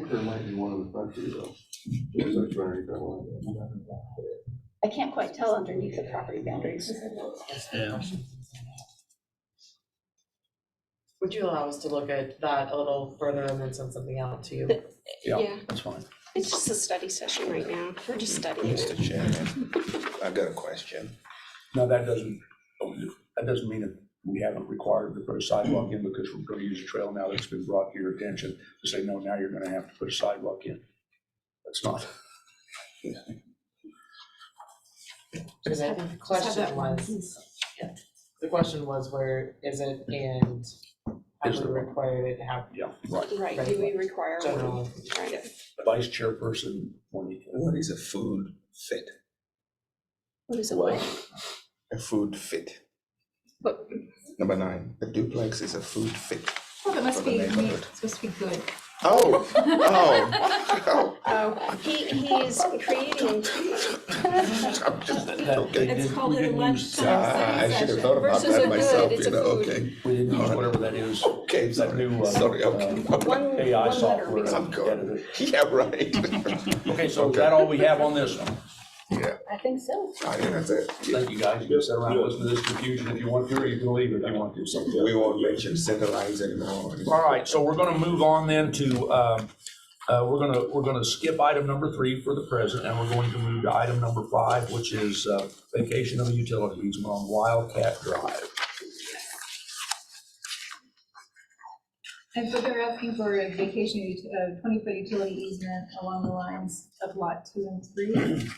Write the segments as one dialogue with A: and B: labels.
A: Proctor might be one of the factors though. Just like trying to get one.
B: I can't quite tell underneath the property boundaries.
C: Yeah.
D: Would you allow us to look at that a little further and then send something out to you?
E: Yeah,
C: That's fine.
E: it's just a study session right now. We're just studying.
F: Mr. Chairman, I've got a question.
C: No, that doesn't, that doesn't mean that we haven't required to put a sidewalk in because we're gonna use a trail now that's been brought to your attention to say, no, now you're gonna have to put a sidewalk in. That's not,
D: Because I think the question was, yeah, the question was where is it and
C: Is
D: have
C: it-
D: we required it to have
C: yeah, right.
E: Right, do we require one?
D: general?
E: Right.
C: Vice chairperson, when
F: What is a food fit?
E: What is it, what?
F: A food fit.
G: But-
F: Number nine, a duplex is a food fit.
G: Well, it must
F: For the
G: be, neat.
F: neighborhood.
G: it's supposed to be good.
F: Oh, oh,
E: Oh, he, he is creating,
F: oh, I'm just,
C: that, they
F: okay.
G: It's
C: didn't,
G: called
C: we
G: a
C: didn't
G: lunch
C: use,
G: time.
F: Ah, I should have thought about
G: Versus a
F: that
G: good,
F: myself, you
G: it's a
F: know,
G: food.
F: okay.
C: we didn't use whatever that is,
F: Okay,
C: that new,
F: sorry,
C: uh,
F: sorry, okay.
E: one,
C: AI
E: one letter
C: software.
E: makes
F: I'm good. Yeah, right.
C: Okay, so is that all we have on this one?
F: Yeah,
B: I think so.
F: I think Ah, that's it.
C: Thank you, guys. You can sit around and listen to this confusion if you want to, or you can leave if you want to. So-
F: We won't mention center lines anymore.
C: All right, so we're gonna move on then to, um, uh, we're gonna, we're gonna skip item number three for the present, and we're going to move to item number five, which is uh, vacation of utilities on Wildcat Drive.
G: And so they're asking for a vacation, ut- uh, twenty-foot utility easement along the lines of lot two and three.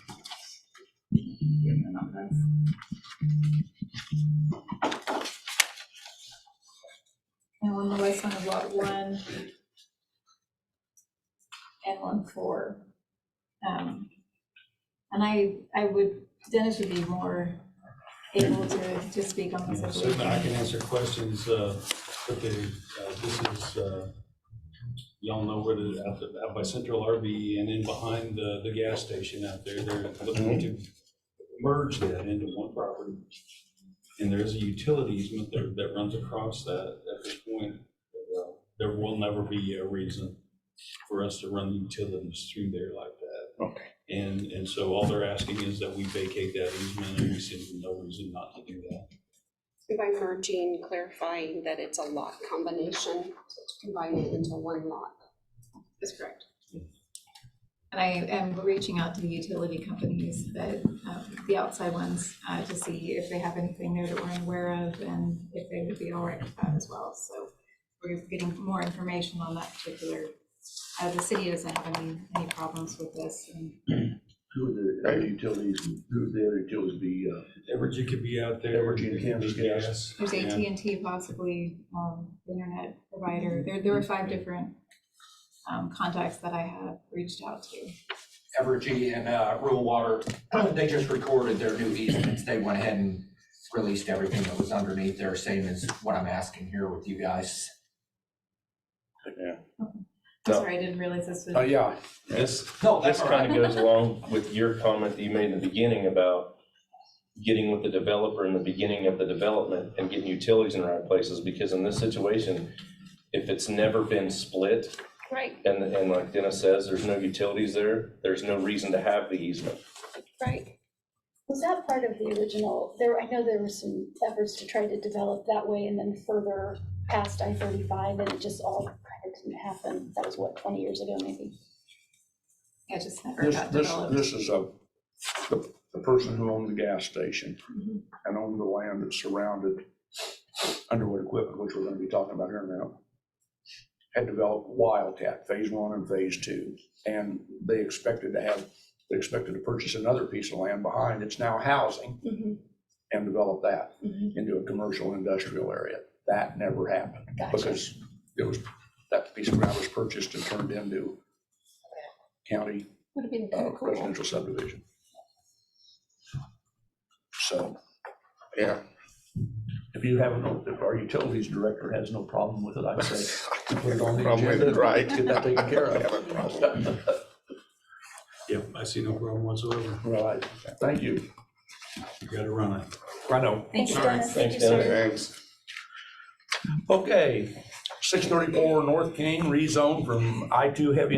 G: Yeah, they're not nice. And along the west side of lot one. And one four. Um, And I, I would, Dennis would be more able to, to speak on this. I believe.
H: Certainly, I can answer questions, uh, but the, uh, this is, uh, y'all know where the, out the- out by Central RV and in behind the, the gas station out there, they're looking to merge that into one property. And there's a utility easement that, that runs across that at this point. Uh, There will never be a reason for us to run utilities through there like that.
F: Okay.
H: And, and so all they're asking is that we vacate that easement and we see no reason not to do that.
E: By merging, clarifying that it's a lot combination, so it's combining into one lot. That's correct.
G: And I am reaching out to the utility companies, that, uh, the outside ones, uh, to see if they have anything there that we're unaware of and if they would be all right with that as well. So we're getting more information on that particular, uh, the city doesn't have any, any problems with this. and
C: Who would the other utilities, who would the other utilities be, uh,
H: Evergy could be out there.
C: Evergy, Kansas Gas.
G: There's
H: Yeah.
G: AT&T possibly, um, the internet provider. There, there were five different, um, contacts that I have reached out to.
I: Evergy and uh, Rural Water, they just recorded their new easements. They went ahead and released everything that was underneath there, same as what I'm asking here with you guys.
G: I'm
J: No.
G: sorry, I didn't realize this was.
C: oh, yeah,
J: This,
I: No,
J: this
I: that's all
J: kind
I: right.
J: of goes along with your comment that you made in the beginning about getting with the developer in the beginning of the development and getting utilities in the right places, because in this situation, if it's never been split,
E: Right,
J: and, and like Dennis says, there's no utilities there, there's no reason to have the easement.
E: right.
B: Was that part of the original, there, I know there were some efforts to try to develop that way and then further past I thirty-five, and it just all kind of didn't happen. That was what, twenty years ago maybe?
G: I just never
C: this,
G: got
C: this,
G: developed.
C: this is a, the, the person who owned the gas station
G: Mhm.
C: and owned the land that surrounded Underwood Equipment, which we're gonna be talking about here in a minute, had developed Wildcat, phase one and phase two. And they expected to have, they expected to purchase another piece of land behind, it's now housing,
B: Mhm.
C: and develop that
B: Mhm.
C: into a commercial industrial area. That never happened
B: Gotcha.
C: because it was, that piece of ground was purchased and turned into county
G: Would have been
C: uh,
G: kinda cool.
C: residential subdivision. So
F: Yeah.
C: if you have, no, if our utilities director has no problem with it, I'd say put it on the
F: Problem with it,
C: agenda.
F: right.
C: Get that taken care
F: I have a problem.
C: of.
H: Yep, I see no problem whatsoever.
C: Right, thank you.
H: You gotta run it.
C: I know.
G: Thank you.
B: Dennis.
J: Thanks,
B: Thank you, sir.
J: Dennis.
F: Thanks.
C: Okay, six thirty-four North King rezone from I two heavy